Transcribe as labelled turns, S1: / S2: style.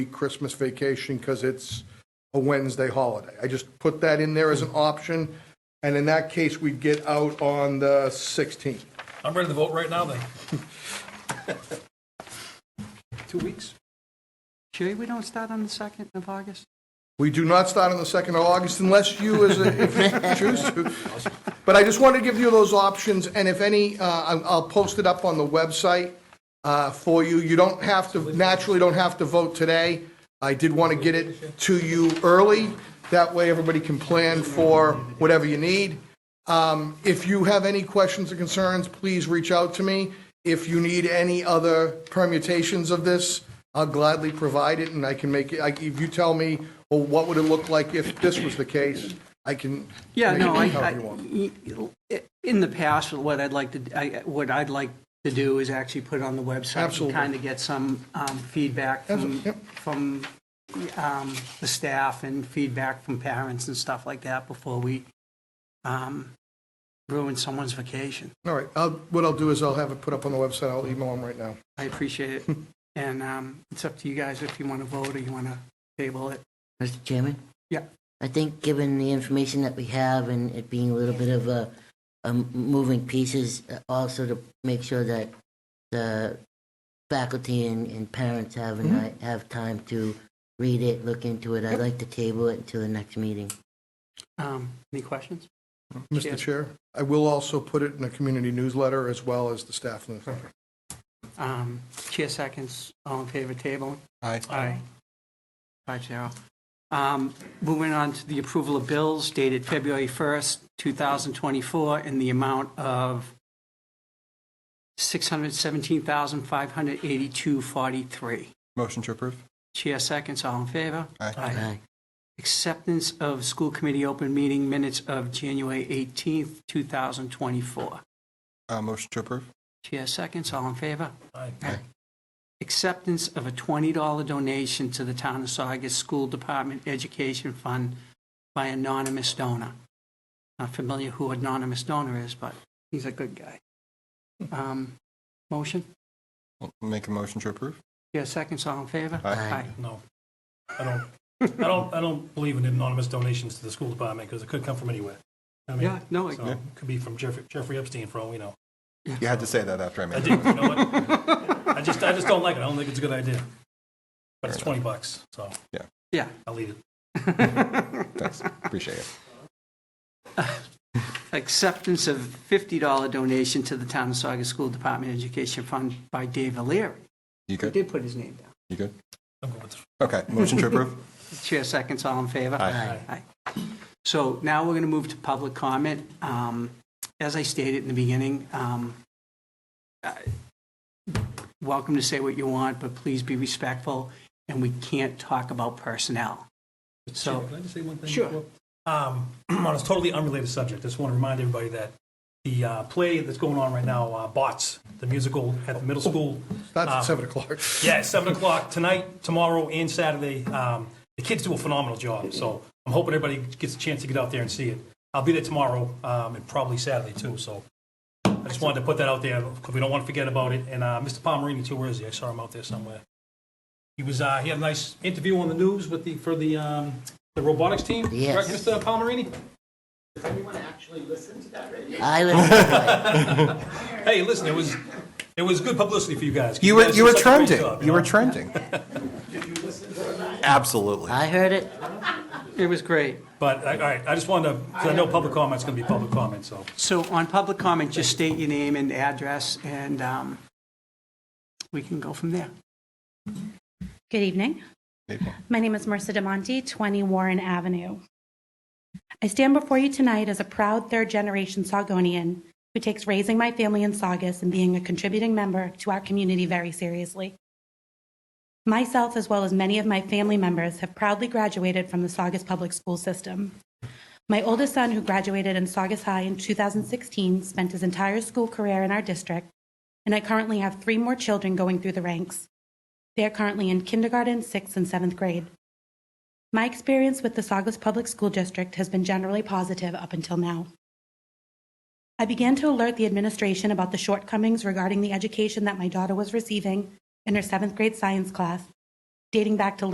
S1: Christmas vacation because it's a Wednesday holiday. I just put that in there as an option, and in that case, we'd get out on the 16th.
S2: I'm ready to vote right now, then.
S1: Two weeks.
S3: Sure we don't start on the 2nd of August?
S1: We do not start on the 2nd of August unless you, as a, if you choose to. But I just wanted to give you those options, and if any, uh, I'll I'll post it up on the website uh, for you. You don't have to, naturally don't have to vote today. I did want to get it to you early, that way everybody can plan for whatever you need. Um, If you have any questions or concerns, please reach out to me. If you need any other permutations of this, I'll gladly provide it, and I can make, it. I- if you tell me, well, what would it look like if this was the case, I can.
S3: Yeah,
S1: make it
S3: no, I,
S1: however you want.
S3: I- i- in the past, what I'd like to, I- what I'd like to do is actually put it on the website.
S1: Absolutely.
S3: Kind of get some um, feedback from,
S1: Absolutely, yep.
S3: from um, the staff and feedback from parents and stuff like that before we um, ruin someone's vacation.
S1: All right, I'll- what I'll do is I'll have it put up on the website, I'll email them right now.
S3: I appreciate it. And um, it's up to you guys if you want to vote or you want to table it.
S4: Mr. Chairman?
S3: Yeah.
S4: I think given the information that we have and it being a little bit of a, a moving pieces, uh, also to make sure that the faculty and, and parents have, and I have time to read it, look into it, I'd like to table it until the next meeting.
S3: Um, Any questions?
S1: Mr. Chair, I will also put it in a community newsletter as well as the staff newsletter.
S3: Um, Chair seconds, all in favor, table?
S1: Aye.
S3: Aye. Five zero. Um, Moving on to the approval of bills dated February 1st, 2024, in the amount of 617582
S5: Motion to approve.
S3: Chair seconds, all in favor?
S5: Aye.
S4: Aye.
S3: Acceptance of school committee open meeting minutes of January 18th, 2024.
S5: Uh, motion to approve.
S3: Chair seconds, all in favor?
S2: Aye.
S3: acceptance of a $20 donation to the Town of Saugus School Department Education Fund by anonymous donor. Not familiar who anonymous donor is, but he's a good guy. Um, Motion?
S5: Make a motion to approve.
S3: Yeah, seconds, all in favor?
S5: Aye.
S2: No, I don't, I don't, I don't believe in anonymous donations to the school department, because it could come from anywhere. I mean,
S3: Yeah, no, I-
S2: so it Could be from Jeffrey, Jeffrey Epstein, for all we know.
S5: You had to say that after I made
S2: I
S5: it.
S2: didn't, you know what? I just, I just don't like it, I don't think it's a good idea. But it's
S5: Fair enough.
S2: 20 bucks, so
S3: Yeah.
S2: I'll leave it.
S5: Thanks. Appreciate it.
S3: Acceptance of $50 donation to the Town of Saugus School Department Education Fund by Dave O'Leary.
S5: You
S3: He
S5: good?
S3: did put his name down.
S5: You good?
S2: I'm going with-
S5: Okay. Motion to approve.
S3: Chair seconds, all in favor?
S5: Aye.
S3: Aye. So now we're going to move to public comment. Um, As I stated in the beginning, um, I- welcome to say what you want, but please be respectful, and we can't talk about personnel. So,
S2: Can I just say one thing?
S3: Sure.
S2: before? Um, On a totally unrelated subject, just want to remind everybody that the uh, play that's going on right now, uh, Bots, the musical at the
S3: Oh.
S2: middle school,
S1: That's at 7 o'clock.
S2: Yeah, it's seven o'clock tonight, tomorrow, and Saturday. Um, the kids do a phenomenal job, so I'm hoping everybody gets a chance to get out there and see it. I'll be there tomorrow um, and probably Saturday too. So I just wanted to put that out there because we don't want to forget about it. And uh, Mr. Palmerini too. Where is he? I saw him out there somewhere. He was. Uh, he had a nice interview on the news with the for the um, the robotics team.
S4: Yes.
S2: Correct, Mr. Palmerini.
S4: I was,
S2: Hey, listen, it was it was good publicity for you guys.
S5: You were
S2: guys
S5: you
S2: did
S5: were
S2: such a great
S5: trending.
S2: job,
S5: you were
S2: know?
S5: trending. Absolutely.
S4: I heard it.
S3: it was great.
S2: But I- all right, I just wanted to. 'cause I know public comment's going to be public comment, so.
S3: So on public comment, just state your name and address, and um, we can go from there.
S6: Good evening. My name is Marissa DeMonte, 20 Warren Avenue. I stand before you tonight as a proud third-generation Saugonian who takes raising my family in Saugus and being a contributing member to our community very seriously. Myself, as well as many of my family members, have proudly graduated from the Saugus Public School System. My oldest son, who graduated in Saugus High in 2016, spent his entire school career in our district, and I currently have three more children going through the ranks. They are currently in kindergarten, sixth, and seventh grade. My experience with the Saugus Public School District has been generally positive up until now. I began to alert the administration about the shortcomings regarding the education that my daughter was receiving in her seventh grade science class, dating back to